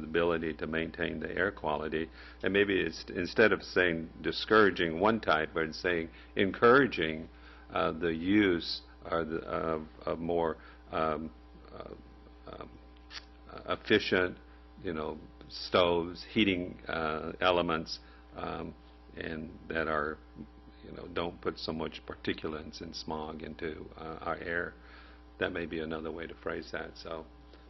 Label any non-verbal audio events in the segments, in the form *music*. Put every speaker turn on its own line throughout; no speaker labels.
the ability to maintain the air quality. And maybe it's, instead of saying discouraging one type, but it's saying encouraging uh, the use or the, of, of more um, uh, um, efficient, you know, stoves, heating uh, elements, um, and that are, you know, don't put so much particulates and smog into uh, our air. That may be another way to phrase that, so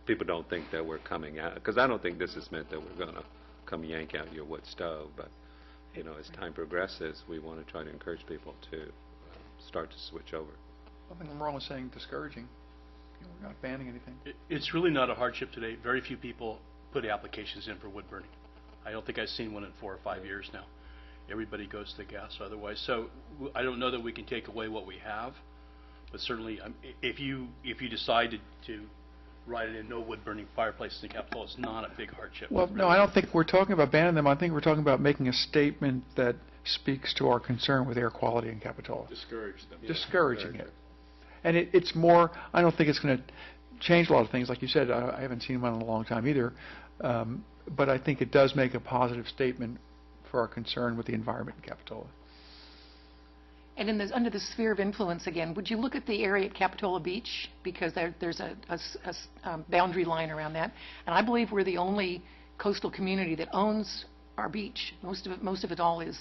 people don't think that we're coming out, because I don't think this is meant that we're going to come yank out your wood stove, but, you know, as time progresses, we want to try to encourage people to uh, start to switch over.
Nothing wrong with saying discouraging. You know, We're not banning anything.
It- It's really not a hardship today. Very few people put applications in for wood burning. I don't think I've seen one in four or five years now. Everybody goes to gas otherwise. So w- I don't know that we can take away what we have, but certainly, um, i- if you, if you decided to write it in no wood burning fireplaces in Capitola, it's not a big hardship.
Well, no, I don't think we're talking about banning them. I think we're talking about making a statement that speaks to our concern with air quality in Capitola,
Discourage them.
discouraging it. And it, it's more, I don't think it's going to change a lot of things. Like you said, I I haven't seen one in a long time either. Um, But I think it does make a positive statement for our concern with the environment in Capitola.
And in this, under the sphere of influence again, would you look at the area at Capitola Beach? Because there, there's a, a s- a s- um, boundary line around that. And I believe we're the only coastal community that owns our beach. Most of it, most of it all is,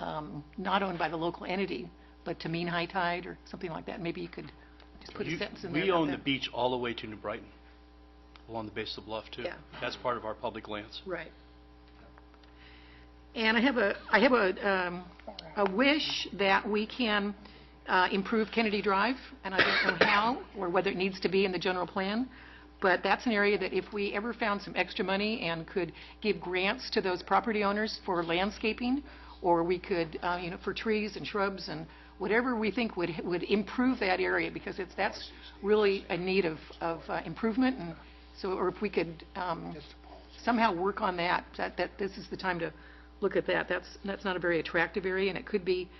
um, not owned by the local entity, but to mean high tide or something like that. Maybe you could just put a
You-
sentence in there
We
about
own the
that.
beach all the way to New Brighton, along the base of the bluff, too.
Yeah.
That's part of our public lands.
Right. And I have a, I have a, um, a wish that we can uh, improve Kennedy Drive, and I don't know how, or whether it needs to be in the general plan, but that's an area that if we ever found some extra money and could give grants to those property owners for landscaping, or we could, uh, you know, for trees and shrubs and whatever we think would, would improve that area, because it's, that's really a need of, of uh, improvement, and so, or if we could, um, somehow work on that, that, that this is the time to look at that. That's, that's not a very attractive area, and it could be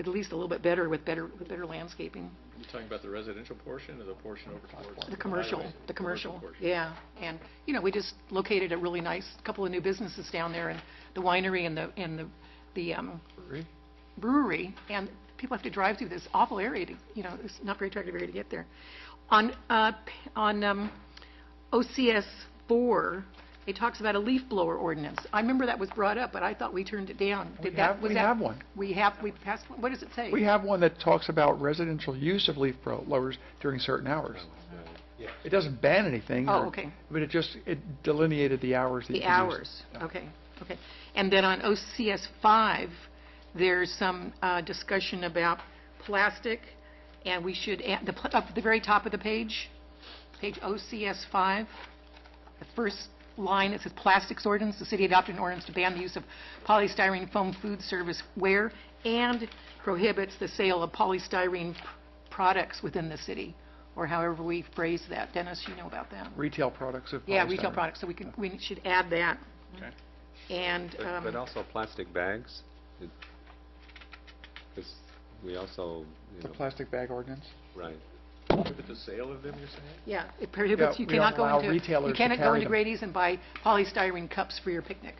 at least a little bit better with better, with better landscaping.
You talking about the residential portion or the portion over towards?
The commercial,
highway?
the commercial,
portion.
yeah. And, you know, we just located a really nice, couple of new businesses down there, and the winery and the, and the, the um,
Agree?
brewery, and people have to drive through this awful area to, you know, it's not very attractive area to get there. On, uh, p- on, um, OCS four, it talks about a leaf blower ordinance. I remember that was brought up, but I thought we turned it down.
We
Did that-
have-
was
we
that-
have one.
We have, we passed, one? what does it say?
We have one that talks about residential use of leaf blowers during certain hours. It doesn't ban anything.
Oh,
or-
okay.
But it just, it delineated the hours that you
The
could use Uh, it.
hours, okay, okay. And then on OCS 5, there's some uh, discussion about plastic, and we should, add- the pl- up at the very top of the page, page OCS 5, the first line, it says, "Plastics ordinance, the city adopted an ordinance to ban the use of polystyrene foam food service ware and prohibits the sale of polystyrene p- products within the city," or however we phrase that. Dennis, you know about that?
Retail products of
Yeah, retail
polystyrene.
products, so we can, we should add that. And,
But but
um,
also plastic bags, because we also, you
The
know,
plastic bag ordinance.
right.
But the sale of them, you're saying?
yeah, it prohibits,
Yeah,
you
we don't
cannot go
allow
into,
retailers
you
to
cannot go
carry
into
them.
Grady's and buy polystyrene cups for your picnic,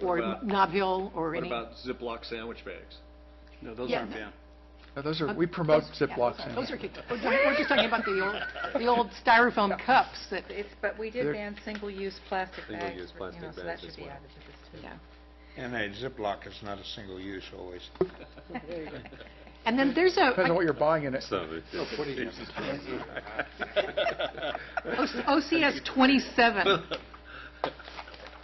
or
about-
Nob Hill, or
What
any.
about Ziploc sandwich bags?
No, those
Yeah.
aren't banned.
Now, those are, we promote
Uh, Those- yeah,
Ziplocs.
those are-
and-
Those are, kicked- we're
*laughs*
we're just talking about the old, the old styrofoam cups that,
It's, but we
They're-
did ban single-use plastic bags.
Single-use
for- you
plastic
know, So
bags
that
as
should be
well.
added to this too.
yeah.
And a Ziploc is not a single use always.
And then there's a,
Depends on what you're buying in it.
So *laughs* it-
O- OCS
*laughs*
27.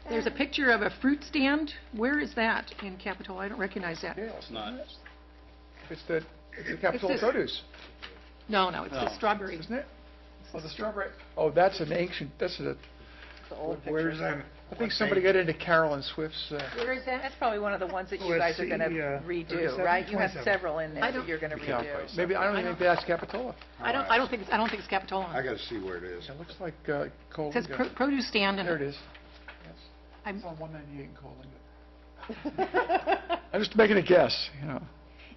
There's a picture of a fruit stand. Where is that in Capitol? I don't recognize that.
It's not.
It's the, it's the Capitol
this-
produce,
No, no, it's the
No.
strawberry.
isn't it? Oh, the strawberry, oh, that's an ancient, that's a,
Where's that?
I think somebody got into Carolyn Swift's, uh,
Where is that? That's probably one of the ones that you
Let's
guys are
see,
going to
uh,
redo,
37,
right? You have
27.
several in
I
there
don't-
that you're going to
yeah.
redo.
maybe, I don't even think that's Capitola.
I don't, I don't think, it's- I don't think it's
I
Capitola.
gotta see where it is.
It looks like, uh, Cole.
It says pro- produce stand,
There it
and
is.
I'm,
It's on 198 in *laughs* Colin. I'm just making a guess, you know.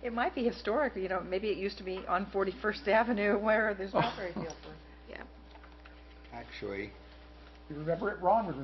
It might be historic, you know, maybe it used to be on
Oh.
41st Avenue where there's not very few.
yeah.
Actually,
You remember it? Ron was